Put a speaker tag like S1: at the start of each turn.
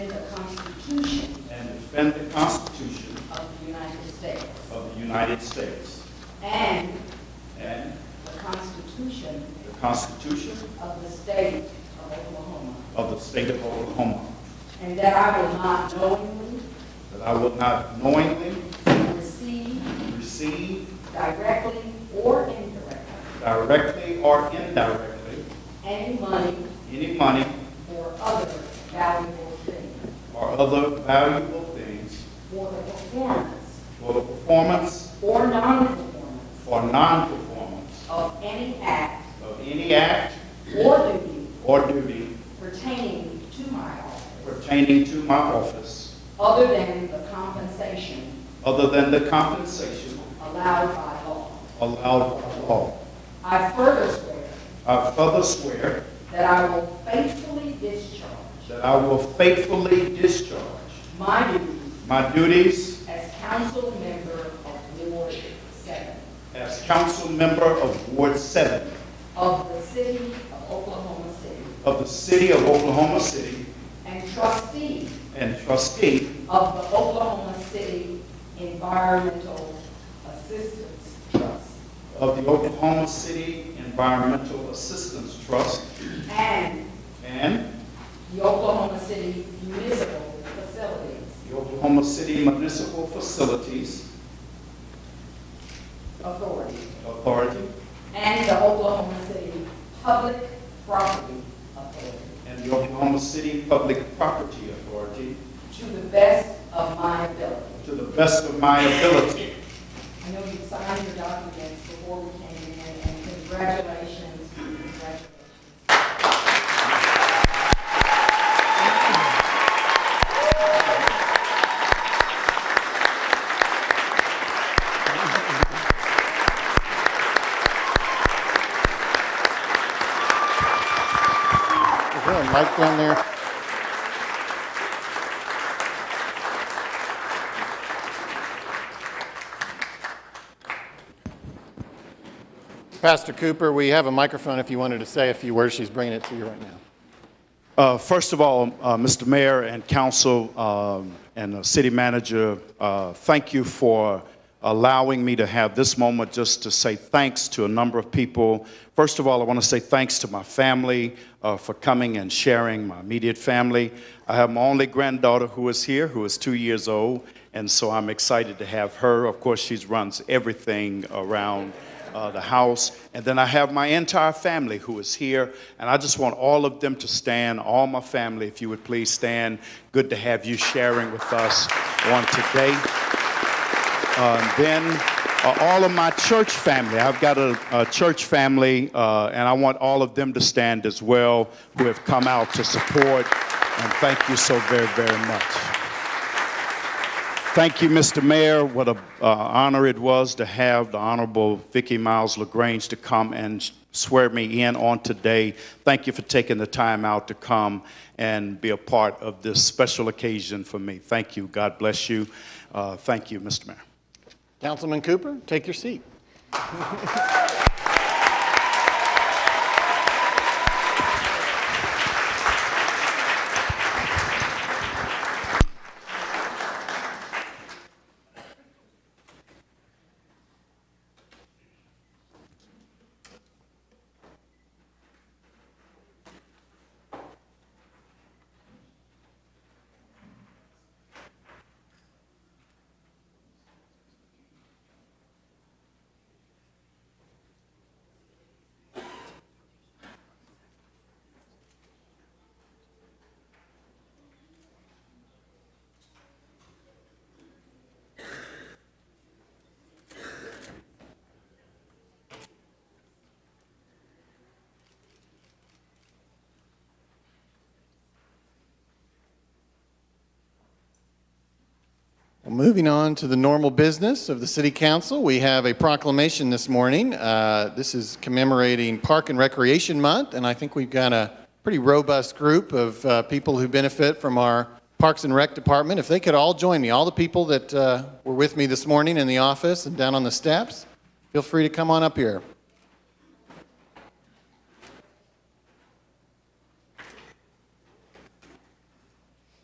S1: defend the Constitution
S2: of the United States
S1: of the United States
S2: and
S1: and
S2: the Constitution
S1: the Constitution
S2: of the State of Oklahoma,
S1: of the State of Oklahoma,
S2: and that I will not knowingly
S1: that I will not knowingly
S2: receive
S1: receive
S2: directly or indirectly
S1: directly or indirectly
S2: any money
S1: any money
S2: or other valuable thing
S1: or other valuable things
S2: for the performance
S1: for the performance
S2: or non-performance
S1: or non-performance
S2: of any act
S1: of any act
S2: or duty
S1: or duty
S2: pertaining to my office
S1: pertaining to my office
S2: other than the compensation
S1: other than the compensation
S2: allowed by law.
S1: allowed by law.
S2: I further swear
S1: I further swear
S2: that I will faithfully discharge
S1: that I will faithfully discharge
S2: my duties
S1: my duties
S2: as council member of Ward 7
S1: as council member of Ward 7
S2: of the city of Oklahoma City
S1: of the City of Oklahoma City
S2: and trustee
S1: and trustee
S2: of the Oklahoma City Environmental Assistance Trust
S1: of the Oklahoma City Environmental Assistance Trust
S2: and
S1: and
S2: the Oklahoma City Municipal Facilities
S1: the Oklahoma City Municipal Facilities
S2: Authority
S1: Authority
S2: and the Oklahoma City Public Property Authority
S1: and the Oklahoma City Public Property Authority
S2: to the best of my ability.
S1: to the best of my ability.
S2: I know you signed your documents before we came in, and congratulations, congratulations.
S3: Is there a mic down there? Pastor Cooper, we have a microphone if you wanted to say a few words. She's bringing it to you right now.
S1: Uh, First of all, uh, Mr. Mayor and council um, and the city manager, uh, thank you for allowing me to have this moment just to say thanks to a number of people. First of all, I want to say thanks to my family uh, for coming and sharing, my immediate family. I have my only granddaughter who is here, who is two years old, and so I'm excited to have her. Of course, she runs everything around uh, the house. And then I have my entire family who is here. And I just want all of them to stand, all my family, if you would please stand. Good to have you sharing with us on today. Uh, and then uh, all of my church family. I've got a, a church family, uh, and I want all of them to stand as well who have come out to support. And thank you so very, very much. Thank you, Mr. Mayor. What an honor it was to have the Honorable Vicky Miles LaGrange to come and swear me in on today. Thank you for taking the time out to come and be a part of this special occasion for me. Thank you. God bless you. Uh, Thank you, Mr. Mayor.
S3: Councilman Cooper, take your seat. Well, moving on to the normal business of the City Council, we have a proclamation this morning. Uh, This is commemorating Park and Recreation Month, and I think we've got a pretty robust group of uh, people who benefit from our Parks and Rec Department. If they could all join me, all the people that uh, were with me this morning in the office and down on the steps, feel free to come on up here.